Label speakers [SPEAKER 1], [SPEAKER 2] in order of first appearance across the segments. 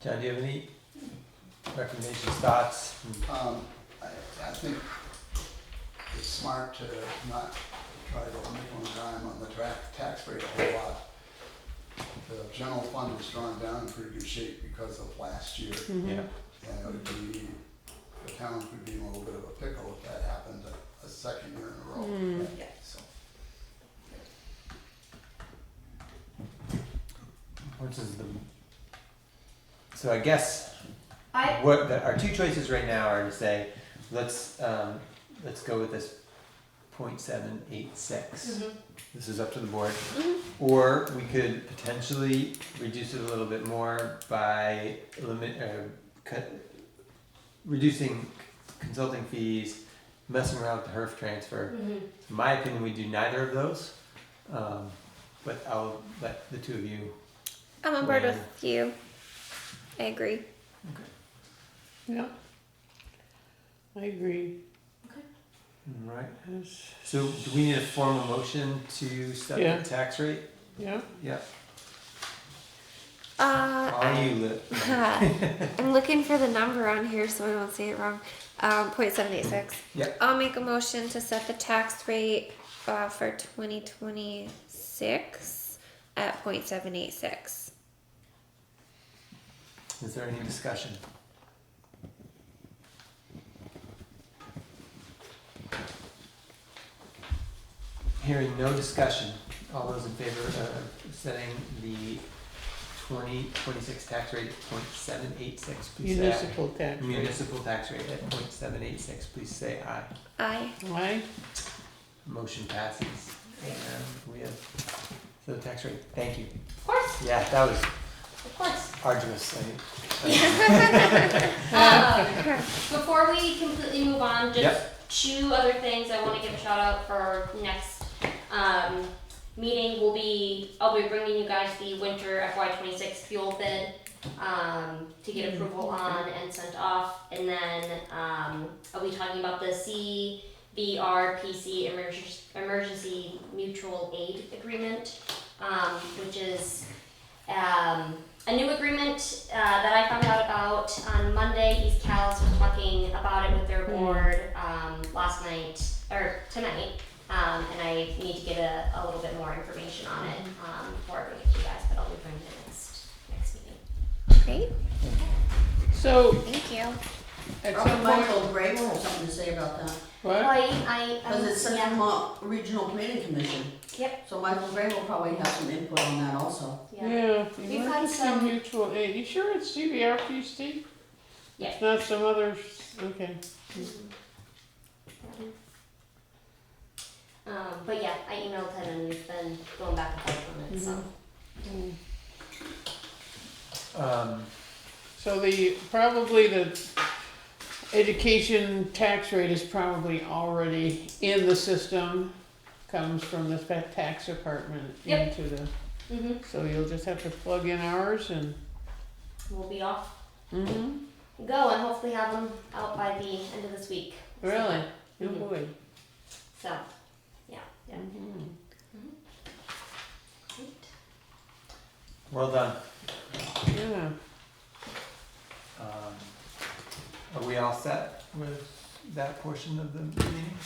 [SPEAKER 1] John, do you have any recommendations, thoughts?
[SPEAKER 2] Um, I, I think it's smart to not try to nickel and dime on the tra- tax rate a whole lot. The general fund is drawn down in pretty good shape because of last year,
[SPEAKER 1] Yeah,
[SPEAKER 2] and it would be, the town could be in a little bit of a pickle if that happened a, a second year in a row.
[SPEAKER 3] Yeah.
[SPEAKER 2] So,
[SPEAKER 1] what is the? So I guess
[SPEAKER 3] I,
[SPEAKER 1] what the, our two choices right now are to say, let's um, let's go with this 0.786. This is up to the board. Or we could potentially reduce it a little bit more by limit, uh, cut, reducing consulting fees, messing around with the HERF transfer. In my opinion, we do neither of those. Um, but I'll let the two of you.
[SPEAKER 4] I'm on board
[SPEAKER 1] Yeah.
[SPEAKER 4] with you. I agree.
[SPEAKER 5] Yeah. I agree.
[SPEAKER 1] Right.
[SPEAKER 5] Yes.
[SPEAKER 1] So do we need a formal motion to set
[SPEAKER 5] Yeah.
[SPEAKER 1] the tax rate?
[SPEAKER 5] Yeah.
[SPEAKER 1] Yeah.
[SPEAKER 4] Uh,
[SPEAKER 1] Are you lit?
[SPEAKER 4] I'm looking for the number on here so I don't say it wrong. Um, 0.786.
[SPEAKER 1] Yep.
[SPEAKER 4] I'll make a motion to set the tax rate uh, for 2026 at 0.786.
[SPEAKER 1] Is there any discussion? Hearing no discussion, all those in favor of setting the twenty twenty-six tax rate at point seven eight six, please say aye.
[SPEAKER 5] Municipal tax rate.
[SPEAKER 1] Municipal tax rate at point seven eight six, please say aye.
[SPEAKER 4] Aye.
[SPEAKER 5] Aye.
[SPEAKER 1] Motion passes. And we have, so the tax rate, thank you.
[SPEAKER 3] of course,
[SPEAKER 1] Yeah, that was
[SPEAKER 3] of course.
[SPEAKER 1] arduous, I
[SPEAKER 3] Um, Before we completely move on, just two other things I want to give a shout out for next um, meeting will be, I'll be bringing you guys the winter FY twenty-six fuel bid um, to get approval on and sent off. And then um, I'll be talking about the CVRPC emergency, emergency mutual aid agreement, um, which is um, a new agreement uh, that I found out about on Monday. East Cal's was talking about it with their board um, last night or tonight, um, and I need to get a, a little bit more information on it um, before I bring it to you guys. But I'll be bringing it next next meeting.
[SPEAKER 4] Great.
[SPEAKER 5] So
[SPEAKER 4] Thank you.
[SPEAKER 5] at
[SPEAKER 6] Probably
[SPEAKER 5] some point,
[SPEAKER 6] Michael Gray will have something to say about that,
[SPEAKER 5] what?
[SPEAKER 3] Oh, I, I,
[SPEAKER 6] because it's such a mo- regional planning commission.
[SPEAKER 3] Um, Yep.
[SPEAKER 6] So Michael Gray will probably have some input on that also.
[SPEAKER 3] yeah,
[SPEAKER 5] Yeah,
[SPEAKER 3] We've had
[SPEAKER 5] emergency
[SPEAKER 3] some-
[SPEAKER 5] mutual aid. You sure it's CVRPC?
[SPEAKER 3] Yeah.
[SPEAKER 5] It's not some other, okay.
[SPEAKER 3] Um, but yeah, I emailed him and we've been going back and forth on it. So
[SPEAKER 5] Mm.
[SPEAKER 1] think. Um,
[SPEAKER 5] So the, probably the education tax rate is probably already in the system, comes from the fa- tax department
[SPEAKER 3] Yep.
[SPEAKER 5] into the,
[SPEAKER 3] hmm
[SPEAKER 5] so you'll just have to plug in ours and,
[SPEAKER 3] we'll be off
[SPEAKER 5] mm-hmm,
[SPEAKER 3] and go and hopefully have them out by the end of this week.
[SPEAKER 5] really? Oh
[SPEAKER 3] Mhm.
[SPEAKER 5] boy.
[SPEAKER 3] So, yeah, yeah.
[SPEAKER 5] Mhm.
[SPEAKER 3] Great.
[SPEAKER 1] well done.
[SPEAKER 5] Yeah.
[SPEAKER 1] Um, Are we all set with that portion of the meeting?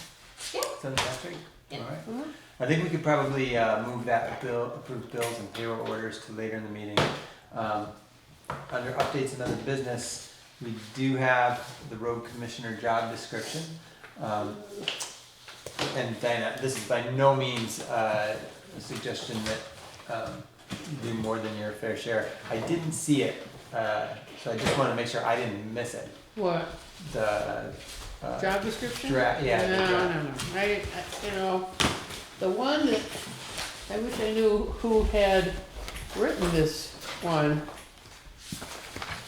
[SPEAKER 3] Yeah.
[SPEAKER 1] Sound that's right?
[SPEAKER 3] Yeah. Mm-hmm.
[SPEAKER 1] All right.
[SPEAKER 5] Mhm.
[SPEAKER 1] I think we could probably uh, move that bill, approved bills and payroll orders to later in the meeting. Um, Under updates and other business, we do have the road commissioner job description. Um, And Diana, this is by no means uh, a suggestion that um, you do more than your fair share. I didn't see it, uh, so I just want to make sure I didn't miss it.
[SPEAKER 5] What,
[SPEAKER 1] The uh,
[SPEAKER 5] job description?
[SPEAKER 1] draft, yeah. the
[SPEAKER 5] No,
[SPEAKER 1] draft.
[SPEAKER 5] no, no, I, I, you know, the one that, I wish I knew who had written this one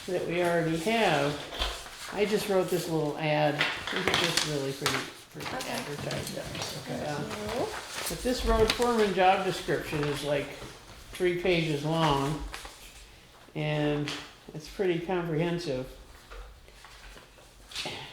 [SPEAKER 5] that we already have. I just wrote this little ad, This is just really pretty, pretty
[SPEAKER 4] Okay.
[SPEAKER 5] advertised up,
[SPEAKER 1] Okay.
[SPEAKER 5] yeah. But this road foreman job description is like three pages long, and it's pretty comprehensive.